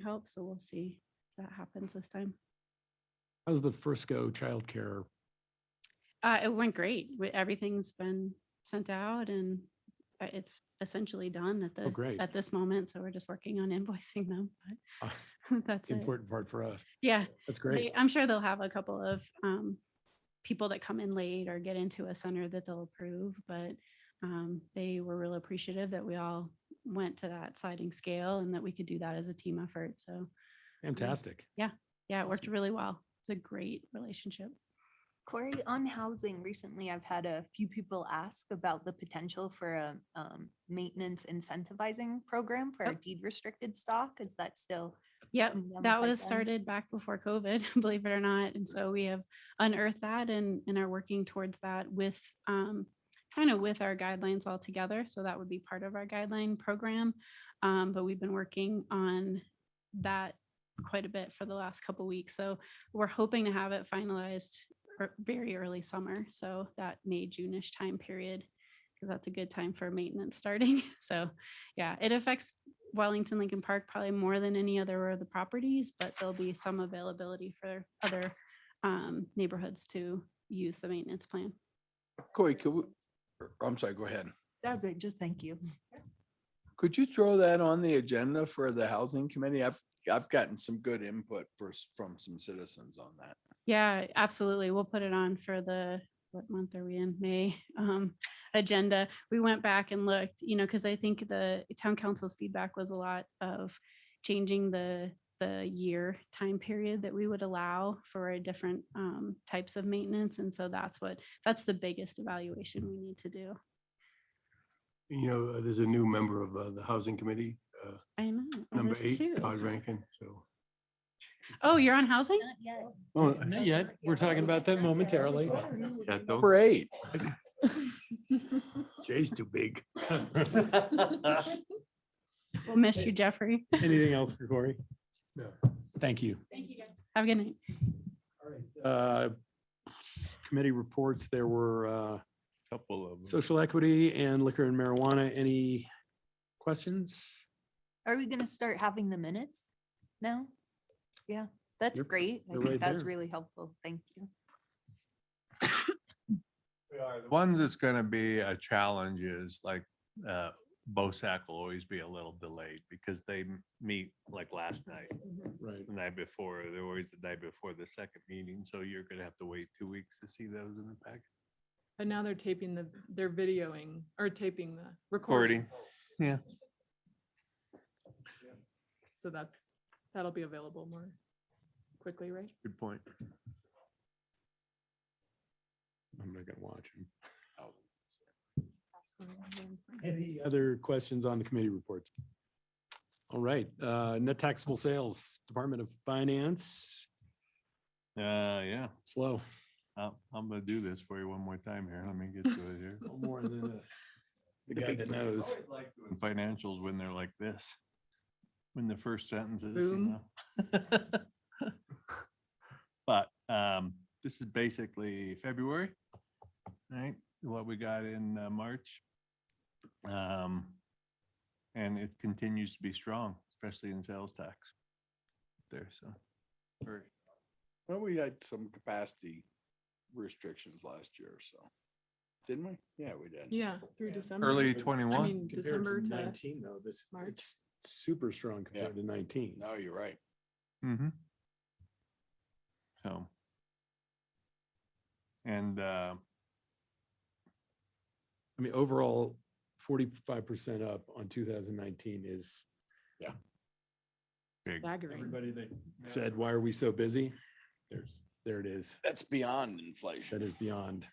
help, so we'll see if that happens this time. How's the Frisco childcare? Uh, it went great. We- Everything's been sent out and uh, it's essentially done at the, Oh, great. at this moment. So we're just working on invoicing them, That's but that's the it. uh, important part for us. Yeah. That's they- great. I'm sure they'll have a couple of, um, people that come in late or get into a center that they'll approve, but, um, they were real appreciative that we all went to that sliding scale and that we could do that as a team effort. So, Fantastic. yeah, it worked Awesome. really well. It's a great relationship. Corey, on housing, recently I've had a few people ask about the potential for a um, maintenance incentivizing program for our Yep. deed restricted stock. Is that still? Yep. coming down the That was pipeline? started back before COVID, believe it or not. And so we have unearthed that and, and are working towards that with, um, kind of with our guidelines all together. So that would be part of our guideline program. Um, but we've been working on that quite a bit for the last couple weeks. So we're hoping to have it finalized ear- very early summer. So that May, June-ish time period, because that's a good time for maintenance starting. So, yeah, it affects Wellington Lincoln Park probably more than any other of the properties, but there'll be some availability for other um, neighborhoods to use the maintenance plan. Corey, could we, or, I'm sorry, go ahead. That's it. Just thank you. Could you throw that on the agenda for the housing committee? I've, I've gotten some good input first from some citizens on that. Yeah, absolutely. We'll put it on for the, what month are we in? May um, agenda. We went back and looked, you know, because I think the town council's feedback was a lot of changing the, the year time period that we would allow for different um, types of maintenance. And so that's what, that's the biggest evaluation we need to do. you know, uh, there's a new member of uh, the Housing Committee, uh, I know. and number Oh, there's two. eight, Todd Rankin, so. Oh, you're on housing? yet. Oh, Not yet. We're talking about that momentarily. Oh, yeah, don't- Number eight. Jay's too big. We'll miss you, Jeffrey. Anything else for Corey? No. Thank you. Have a good night. Uh, Committee reports, there were uh, Couple of. social equity and liquor and marijuana. Any questions? Are we going to start having the minutes now? Yeah, that's You're- great. I you're right think that's there. really helpful. Thank you. Ones that's gonna be a challenge is like, uh, BOSAC will always be a little delayed because they m- meet like last night, Right. the night before, they're always the night before the second meeting. So you're gonna have to wait two weeks to see those in the packet. And now they're taping the, they're videoing or taping the recording. Recording. So that's, that'll be available more quickly, right? Good point. I'm not going to watch him. Thank Any other questions on the committee reports? All right, uh, net taxable sales, Department of Finance, Uh, yeah, slow. I'm, I'm gonna do this for you one more time here. Let me get to it here. More than the- the Oh, guy that knows. When Financials when they're like this, when the first sentence is. you Boom. know. But um, this is basically February, right? What we got in uh, March. Um, And it continues to be strong, especially in sales tax. There, so. very- Well, we had some capacity restrictions last year, so. Didn't we? Yeah, we did. Yeah, through December. Early I I twenty-one. mean, December to, Nineteen though, this, March. it's super strong compared to nineteen. No, you're right. Mm-hmm. So. And uh, I mean, overall, forty-five percent up on two thousand nineteen is big. staggering. that said, why are we so busy? There's, there it is. That's beyond inflation. That is beyond.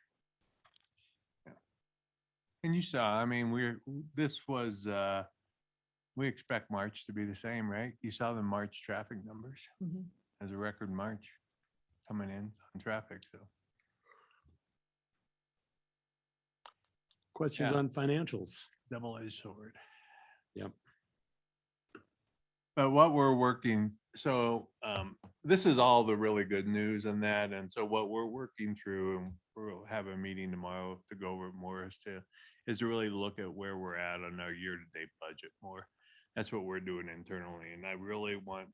And you saw, I mean, we're, this was, uh, we expect March to be the same, right? You saw the March traffic numbers Mhm. as a record March coming in on traffic, so. Questions Yeah. on financials? double edged sword. Yep. But what we're working, so um, this is all the really good news and that, and so what we're working through, and we'll have a meeting tomorrow to go over more is to, is to really look at where we're at on our year-to-date budget more. That's what we're doing internally, and I really want